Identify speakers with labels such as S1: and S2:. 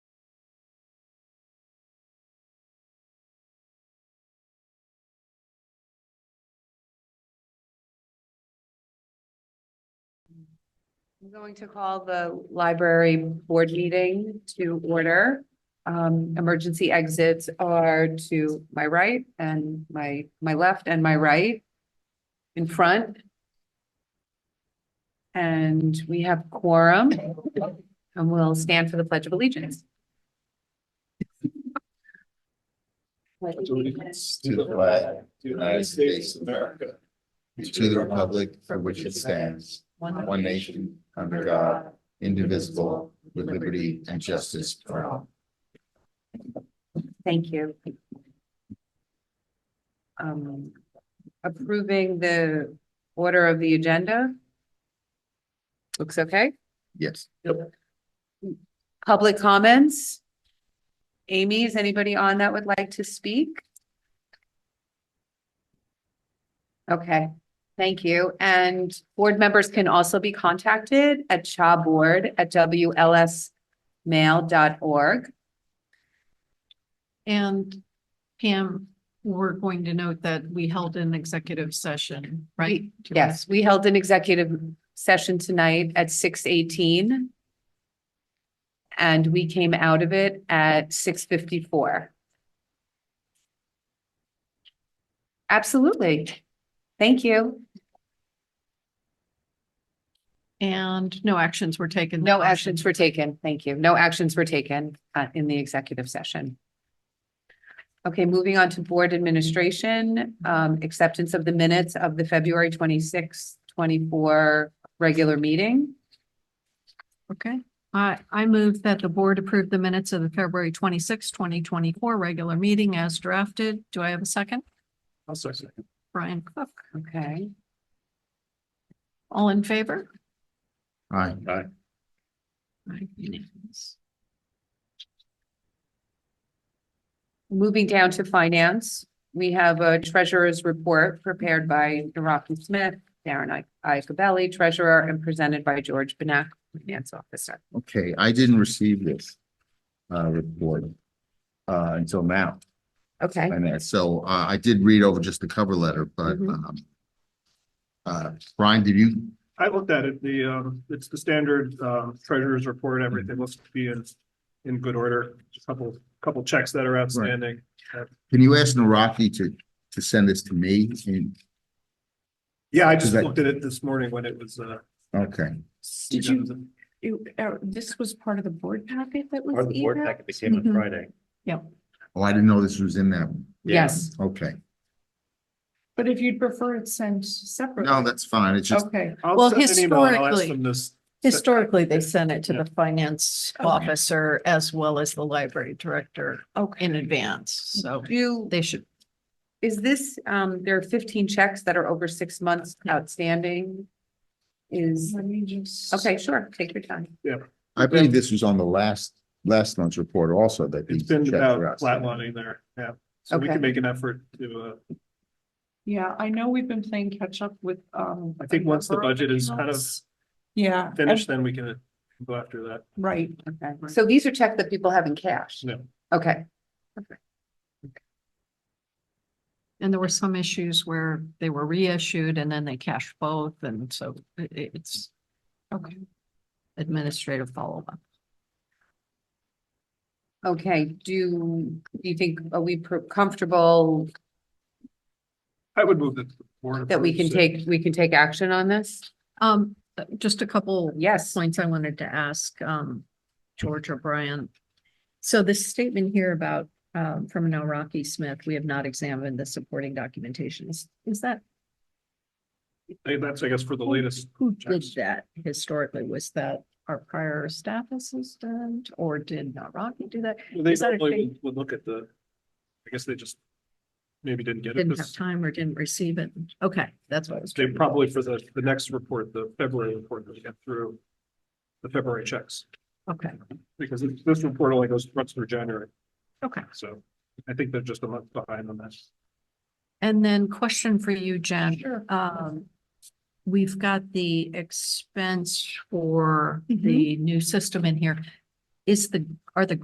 S1: I'm going to call the library board meeting to order. Um, emergency exits are to my right and my, my left and my right in front. And we have quorum and we'll stand for the pledge of allegiance.
S2: allegiance
S3: to the flag
S2: United States of America.
S3: to the republic for which it stands, one nation, under God, indivisible, with liberty and justice for all.
S1: Thank you. Um, approving the order of the agenda. Looks okay.
S3: Yes.
S1: Public comments? Amy, is anybody on that would like to speak? Okay, thank you. And board members can also be contacted at chaboard@wlsmail.org.
S4: And Pam, we're going to note that we held an executive session, right?
S1: Yes, we held an executive session tonight at six eighteen. And we came out of it at six fifty-four. Absolutely. Thank you.
S4: And no actions were taken.
S1: No actions were taken. Thank you. No actions were taken uh, in the executive session. Okay, moving on to board administration, um, acceptance of the minutes of the February twenty-sixth, twenty-four regular meeting.
S4: Okay. I, I move that the board approve the minutes of the February twenty sixth, twenty twenty four regular meeting as drafted. Do I have a second?
S2: I'll start second.
S4: Brian Cook,
S1: Okay.
S4: all in favor?
S3: Aye.
S4: Aye, unanimous.
S1: Moving down to finance, we have a treasurer's report prepared by Naraki Smith, Darren Iacobelli, treasurer, and presented by George Benak, finance officer.
S3: Okay, I didn't receive this uh report uh until now.
S1: Okay,
S3: And that- so uh I did read over just the cover letter, but
S1: Mhm.
S3: um uh Brian, did you?
S2: I looked at it, the, um, it's the standard, um, treasurer's
S3: Mm-hmm.
S2: report, everything looks to be in, in good order. Just a Couple, couple checks that are outstanding.
S3: Can you ask Naraki to to send this to me? And-
S2: Yeah, I just
S3: Is that-
S2: looked at it this morning when it was, uh.
S3: Okay,
S5: Did you, you, uh, this was part of the board packet that was emailed?
S2: packet that
S4: came on Mhm.
S2: Friday.
S3: oh, I didn't know this was in that. one.
S1: yes,
S3: Okay,
S5: But if you'd prefer it sent separately.
S3: no, that's fine. It's just,
S5: Okay,
S2: I'll
S4: Well,
S2: send an email and I'll ask
S4: historically-
S2: them this.
S4: Historically, they sent it to
S2: Yeah.
S4: the finance
S5: Okay.
S4: officer as well as the library director in advance. So
S1: do,
S4: they should
S1: is this, um, there are fifteen checks that are over six months outstanding? Is,
S5: let me just.
S1: okay, sure, take your time.
S3: I believe this was on the last last month's report also that.
S2: It's
S3: these
S2: been
S3: checks
S2: about
S3: were outstanding.
S2: flatlining there, yeah. So we
S1: Okay.
S2: can make an effort to, uh,
S5: Yeah, I know we've been playing catch up with, um.
S2: I think
S5: a
S2: once the
S5: number
S2: budget is kind of
S5: accounts. Yeah.
S2: finish, then we can go after that.
S5: and- Right,
S1: Okay, so these are checks that people have in cash?
S2: No.
S1: Okay,
S4: And there were some issues where they were reissued and then they cashed both, and so i- i- it's
S5: okay.
S4: administrative follow-up.
S1: okay, do you think, are we per- comfortable
S2: I would move that. the board
S1: that we can
S2: approves it.
S1: take, we can take action on this?
S4: Um, uh, just a couple
S1: Yes.
S4: points I wanted to ask, um, George or Brian. So this statement here about, um, from an Rocky Smith, we have not examined the supporting documentation. Is, is that,
S2: Hey, That's, I guess, for the latest.
S4: who did
S2: checks.
S4: that historically? Was that our prior staff assistant or did not Rocky do that?
S2: Well, They
S4: Is that a
S2: probably
S4: thing?
S2: would- would look at the, I guess they just maybe didn't get it,
S4: Didn't have
S2: 'cause
S4: time or didn't receive it? Okay, that's what I was.
S2: they
S4: trying to-
S2: probably for the, the next report, the February report, they get through the February checks,
S4: Okay.
S2: because this- this report only goes, runs through January.
S4: Okay.
S2: So I think they're just a month behind on this.
S4: And then question for you, Jen.
S5: Sure.
S4: Um, we've got the expense for
S5: Mhm.
S4: the new system in here. Is the, are the